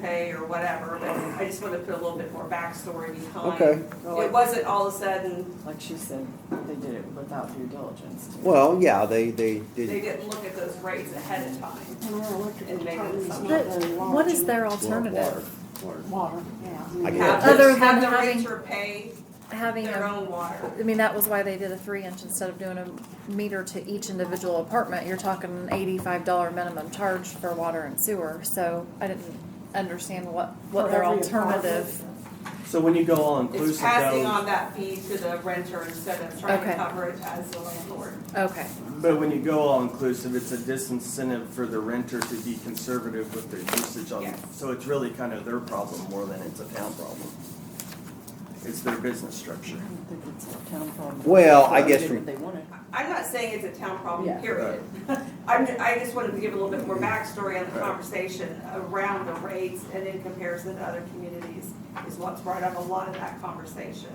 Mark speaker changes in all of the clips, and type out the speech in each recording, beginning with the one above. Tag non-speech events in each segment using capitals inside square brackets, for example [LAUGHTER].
Speaker 1: way or whatever, but I just wanted to put a little bit more backstory behind.
Speaker 2: Okay.
Speaker 1: It wasn't all of a sudden,
Speaker 3: Like she said, they did it without due diligence. too.
Speaker 2: Well, yeah, they, they
Speaker 1: they
Speaker 2: did,
Speaker 1: didn't look at those rates ahead of time.
Speaker 4: And our electrical
Speaker 1: And maybe
Speaker 4: department is
Speaker 1: some-
Speaker 4: not
Speaker 5: But
Speaker 4: very large.
Speaker 5: what is their
Speaker 2: well, water,
Speaker 5: alternative?
Speaker 2: water.
Speaker 4: Water, yeah. I mean,
Speaker 2: I
Speaker 1: Have
Speaker 2: guess.
Speaker 1: the-
Speaker 5: Other than
Speaker 1: have the
Speaker 5: having-
Speaker 1: renter pay
Speaker 5: Having
Speaker 1: their
Speaker 5: a,
Speaker 1: own water.
Speaker 5: I mean, that was why they did a three inch instead of doing a meter to each individual apartment. You're talking an eighty-five dollar minimum charge for water and sewer, so I didn't understand what, what
Speaker 4: for
Speaker 5: their
Speaker 4: every apartment.
Speaker 5: alternative.
Speaker 6: So when you go all
Speaker 1: It's
Speaker 6: inclusive
Speaker 1: passing
Speaker 6: though,
Speaker 1: on that fee to the renter instead of trying to
Speaker 5: Okay.
Speaker 1: cover it as the landlord.
Speaker 5: Okay,
Speaker 6: but when you go all inclusive, it's a disincentive for the renter to be conservative with their usage on.
Speaker 1: Yes.
Speaker 6: So it's really kind of their problem more than it's a town problem. It's their business structure.
Speaker 3: I don't think it's a town problem.
Speaker 2: Well, I guess
Speaker 3: They did
Speaker 2: from-
Speaker 3: what They wanted.
Speaker 1: I'm not saying it's a town problem,
Speaker 3: Yeah.
Speaker 1: period. [LAUGHS] I'm, ju- I just wanted to give a little bit more backstory on the
Speaker 6: Right.
Speaker 1: conversation around the rates and in comparison to other communities is what's brought up a lot of that conversation.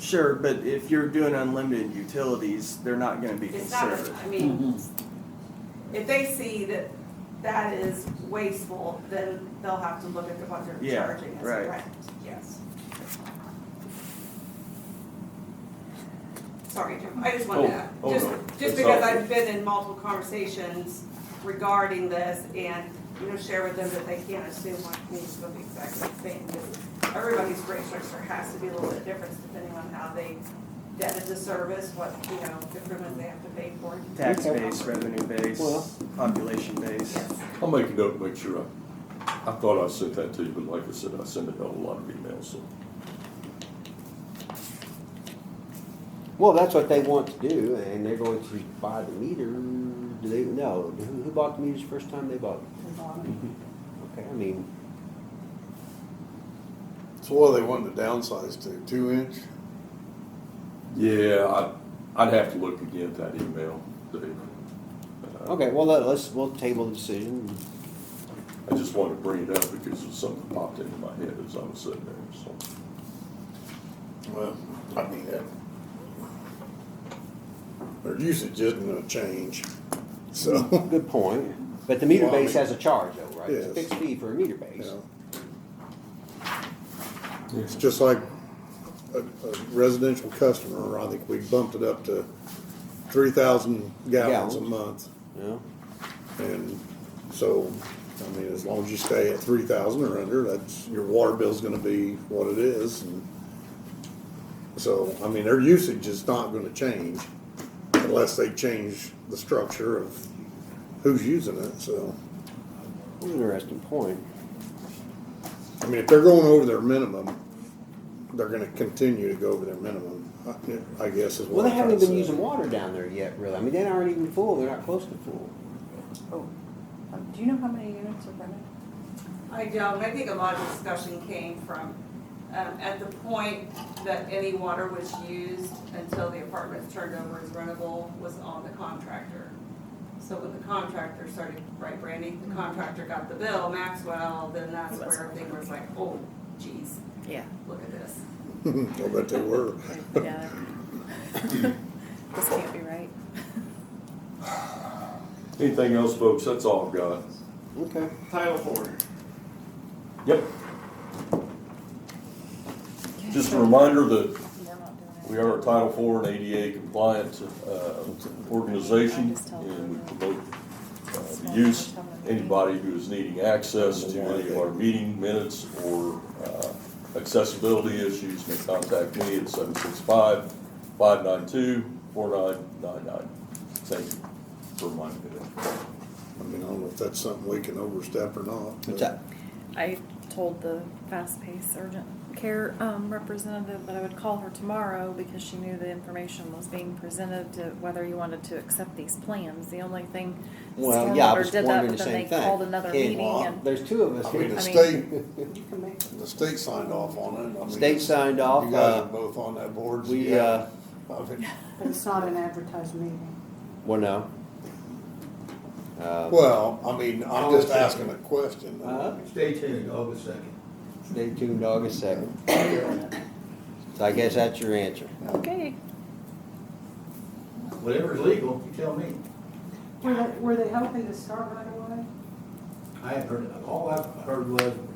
Speaker 6: Sure, but if you're doing unlimited utilities, they're not gonna be
Speaker 1: It's not,
Speaker 6: conservative.
Speaker 1: I mean, if they see that that is wasteful, then they'll have to look at what they're
Speaker 6: Yeah,
Speaker 1: charging as a
Speaker 6: right.
Speaker 1: rent, yes. Sorry, Jim, I just wanted to,
Speaker 7: Oh, oh,
Speaker 1: just,
Speaker 7: no,
Speaker 1: just
Speaker 7: it's
Speaker 1: because
Speaker 7: all-
Speaker 1: I've been in multiple conversations regarding this and, you know, share with them that they can't assume my needs look exactly the same. because Everybody's rate structure has to be a little bit different depending on how they debt is a service, what, you know, improvement they have to pay for.
Speaker 6: Tax base, revenue base,
Speaker 2: Well-
Speaker 6: population base.
Speaker 1: Yes.
Speaker 7: I'll make a note, make sure I, I thought I sent that to you, but like I said, I send it out a lot of emails, so.
Speaker 2: Well, that's what they want to do, and they're going to buy the meter, do they, no, who, who bought the meters the first time they bought them?
Speaker 4: the water.
Speaker 2: Okay, I mean,
Speaker 8: So what are they wanting to downsize to? Two inch?
Speaker 7: Yeah, I, I'd have to look again at that email, Dave. Uh,
Speaker 2: okay, well, let- let's, we'll table the decision.
Speaker 7: I just wanted to bring it up because it's something popped into my head as I was sitting there, so.
Speaker 8: Well, I mean, that. Their usage isn't gonna change, so, [LAUGHS]
Speaker 2: Good point, but the meter
Speaker 8: Well, I
Speaker 2: base
Speaker 8: mean-
Speaker 2: has a charge though, right? It's a
Speaker 8: Yes.
Speaker 2: fixed fee for a meter
Speaker 8: you
Speaker 2: base.
Speaker 8: know. It's just like a, a residential customer, I think we bumped it up to three thousand gallons a
Speaker 2: Gallons.
Speaker 8: month.
Speaker 2: Yeah.
Speaker 8: And so, I mean, as long as you stay at three thousand or under, that's, your water bill's gonna be what it is. and So, I mean, their usage is not gonna change unless they change the structure of who's using it, so.
Speaker 2: Interesting point.
Speaker 8: I mean, if they're going over their minimum, they're gonna continue to go over their minimum, I- I guess is
Speaker 2: Well,
Speaker 8: what
Speaker 2: they
Speaker 8: I'm trying
Speaker 2: haven't
Speaker 8: to
Speaker 2: even
Speaker 8: say.
Speaker 2: used water down there yet, really. I mean, they aren't even full, they're not close to full.
Speaker 3: Oh, um, do you know how many units are rented?
Speaker 1: I don't, I think a lot of discussion came from, um, at the point that any water was used until the apartments turned over as rentable was on the contractor. So when the contractor started, right, Brandy, the contractor got the bill, Maxwell, then Mm-hmm. that's where everything was like, oh, geez,
Speaker 5: yeah,
Speaker 1: look at this.
Speaker 8: [LAUGHS] I bet they were.
Speaker 7: [LAUGHS]
Speaker 5: yeah. [LAUGHS] This can't be right.
Speaker 7: Anything else, folks? That's all I've got.
Speaker 2: Okay.
Speaker 6: Title four.
Speaker 7: Yep. Just a reminder that
Speaker 5: We're not doing it.
Speaker 7: We are a Title IV and ADA compliant uh, organization, and we promote uh, the use, anybody who is needing access to any of our meeting minutes or uh, accessibility issues may contact me at 765-592-4999. Thank you for reminding me of that.
Speaker 8: I mean, I don't know if that's something we can overstep or not. but-
Speaker 2: What's that?
Speaker 5: I told the fast-paced urgent care um, representative that I would call her tomorrow because she knew the information was being presented to whether you wanted to accept these plans. The only thing,
Speaker 2: Well, yeah, I
Speaker 5: Stormwater
Speaker 2: was
Speaker 5: did that,
Speaker 2: wondering
Speaker 5: but
Speaker 2: the
Speaker 5: then
Speaker 2: same
Speaker 5: they called
Speaker 2: thing.
Speaker 5: another
Speaker 2: Okay.
Speaker 5: meeting and,
Speaker 2: There's two of us
Speaker 8: I mean,
Speaker 2: here.
Speaker 8: the
Speaker 5: I mean-
Speaker 8: state,
Speaker 4: You can make it.
Speaker 8: the state signed off on it. I mean,
Speaker 2: State signed
Speaker 8: You
Speaker 2: off,
Speaker 8: guys are
Speaker 2: uh,
Speaker 8: both on that board. so
Speaker 2: we,
Speaker 8: yeah.
Speaker 2: uh,
Speaker 8: I mean,
Speaker 4: But it's not an advertised meeting.
Speaker 2: well, no. Uh,
Speaker 8: Well, I mean, I'm just asking a question.
Speaker 2: Uh-huh.
Speaker 9: Stay tuned, August second.
Speaker 2: stay tuned August second. So I guess that's your answer.
Speaker 5: okay.
Speaker 9: Whatever's legal, you tell me.
Speaker 4: Were they, were they hoping to start right away?
Speaker 9: I have heard, all I've heard was